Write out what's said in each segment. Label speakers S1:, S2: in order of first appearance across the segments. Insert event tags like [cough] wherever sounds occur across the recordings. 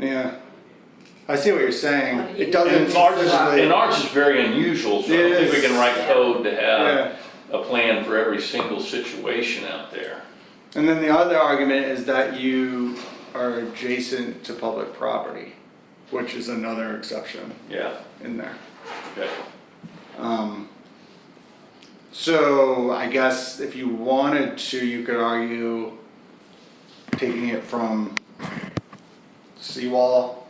S1: yeah. I see what you're saying. It
S2: And
S1: doesn't
S2: ours is, and
S1: physically,
S2: ours is very unusual, so I don't think we can write code to
S1: yeah.
S2: have a plan for every single situation out there.
S1: And then the other argument is that you are adjacent to public property, which is another exception
S2: Yeah,
S1: in there.
S2: okay.
S1: Um, so I guess if you wanted to, you could argue taking it from seawall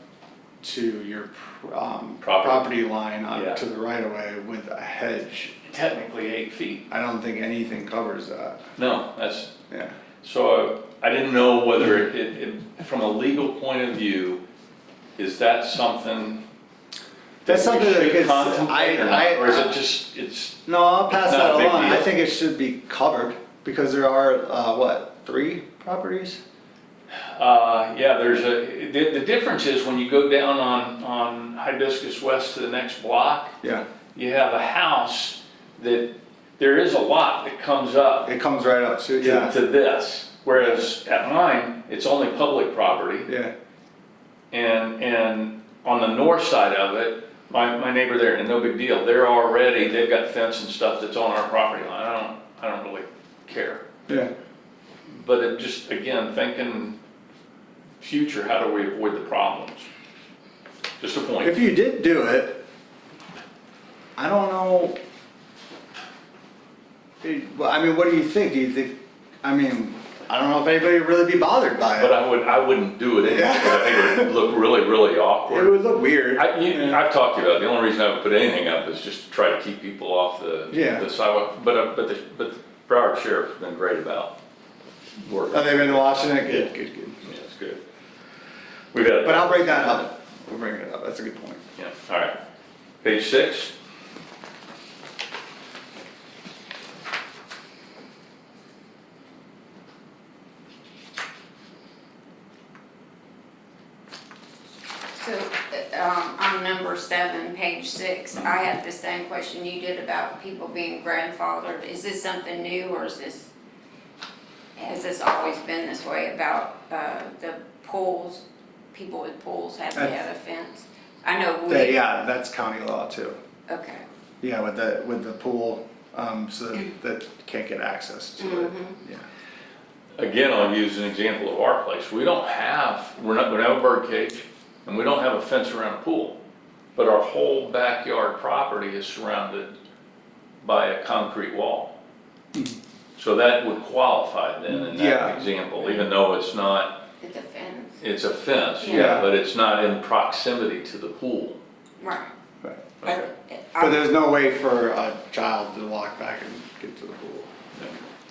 S1: to your um,
S2: Property.
S1: property line on
S2: Yeah.
S1: to the right of way with a hedge.
S2: Technically eight feet.
S1: I don't think anything covers that.
S2: No, that's,
S1: Yeah.
S2: so I I didn't know whether it, it, it- from a legal point of view, is that something?
S1: That's
S2: we
S1: something that
S2: should
S1: gets-
S2: contemplate or not?
S1: I- I-
S2: Or is it just, it's,
S1: No, I'll pass
S2: It's
S1: that
S2: not a big
S1: along. I
S2: deal.
S1: think it should be covered because there are uh, what three properties?
S2: Uh, yeah, there's a, the, the difference is when you go down on, on Hibiscus West to the next block,
S1: Yeah,
S2: you have a house that, there is a lot that comes up
S1: it comes right up to
S2: to,
S1: yeah,
S2: to this. Whereas at mine, it's only public property.
S1: yeah,
S2: And, and on the north side of it, my, my neighbor there, and no big deal, they're already, they've got fence and stuff that's on our property line. I don't, I don't really care.
S1: yeah.
S2: But it just, again, thinking future, how do we avoid the problems? Just a point.
S1: If you did do it, I don't know. It- well, I mean, what do you think? Do you think? I mean, I don't know if anybody would really be bothered by it.
S2: But I would, I wouldn't do it anyway.
S1: Yeah.
S2: I think it would look really, really
S1: It
S2: awkward.
S1: would look weird.
S2: I, you,
S1: yeah.
S2: I've talked to you about, it. the only reason I would put anything up is just to try to keep people off the,
S1: Yeah.
S2: the sidewalk. But, uh, but the, but the Broward Sheriff's been great about working.
S1: Have they Oh, been watching it? Good, good, good.
S2: Yeah, that's good. We've got.
S1: But I'll bring that up. We'll bring it up. That's a good point.
S2: Yeah, all right. Page six.
S3: So, um, on number seven, page six, I have the same question you did about people being grandfathered. Is this something new or is this, has this always been this way about, uh, the pools? People with pools have to have a fence? I know
S1: That-
S3: we,
S1: yeah, that's county law too.
S3: okay.
S1: Yeah, with the, with the pool, um, so that- that can't get access to it, yeah.
S2: Again, I'll use an example of our place. We don't have, we're not, we don't have a bird cage and we don't have a fence around a pool. But our whole backyard property is surrounded by a concrete wall. So that would qualify then in
S1: Hmm. Yeah.
S2: that example, even though it's not,
S3: It's a fence,
S2: it's a fence,
S1: Yeah.
S2: yeah, but it's not in proximity to the pool.
S3: right.
S1: Right.
S2: Okay.
S3: But,
S1: But there's no way for a child to walk back and get to the pool.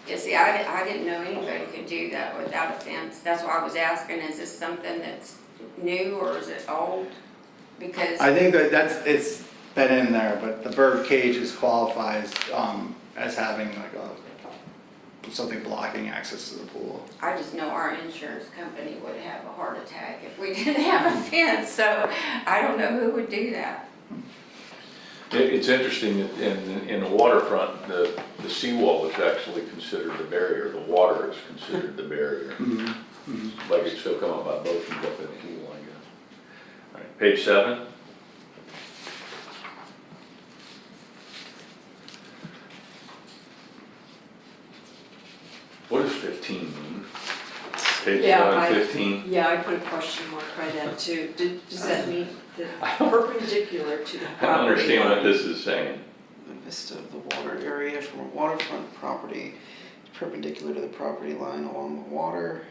S3: Yeah, see, I, di- I didn't know anybody could do that without a fence, that's why I was asking, is this something that's new or is it old? Because,
S1: I think that that's, it's been in there, but the bird cages qualifies, um, as having like a, something blocking access to the pool.
S3: I just know our insurance company would have a heart attack if we [laughs] didn't have a fence, so I don't know who would do that.
S2: It, it's interesting that in, in the waterfront, the, the seawall is actually considered the barrier, the water is considered the barrier. Like it's still come up by boats and up in the pool, I guess. All right, Page seven, what does fifteen mean? Page
S4: Yeah,
S2: seven,
S4: I-
S2: fifteen,
S4: Yeah, I put a question mark by that too. Did- Does that mean
S2: [laughs]
S4: that perpendicular to the
S2: Uh, I don't
S4: property
S2: understand what
S4: line?
S2: this is saying. [laughs]
S5: The vista of the water area from a waterfront property is perpendicular to the property line along the water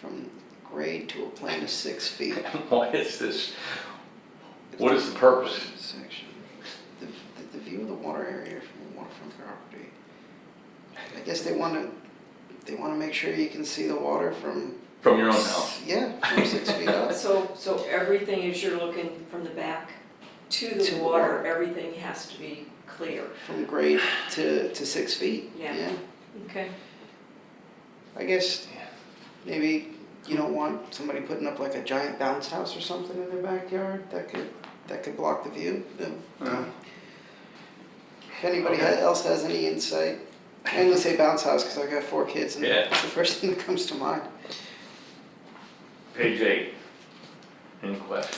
S5: from grade to a plane of six feet.
S2: Why is this, what is the purpose?
S5: Section. The, the- the view of the water area from a waterfront property. I guess they wanna, they wanna make sure you can see the water from.
S2: From your own house.
S5: Yeah, from six feet up.
S4: So, so everything is you're looking from the back to
S5: To
S4: the
S5: the
S4: water,
S5: water.
S4: everything has to be clear.
S5: From grade to, to six feet.
S4: Yeah. Okay.
S5: I guess maybe you don't want somebody putting up like a giant bounce house or something in their backyard that could that could block the view. Then
S1: Uh,
S5: If anybody
S2: Okay.
S5: else has any insight, I'm gonna say bounce house because I've got four kids and
S2: Yeah.
S5: that's the first thing that comes to mind.
S2: Page eight. Any questions?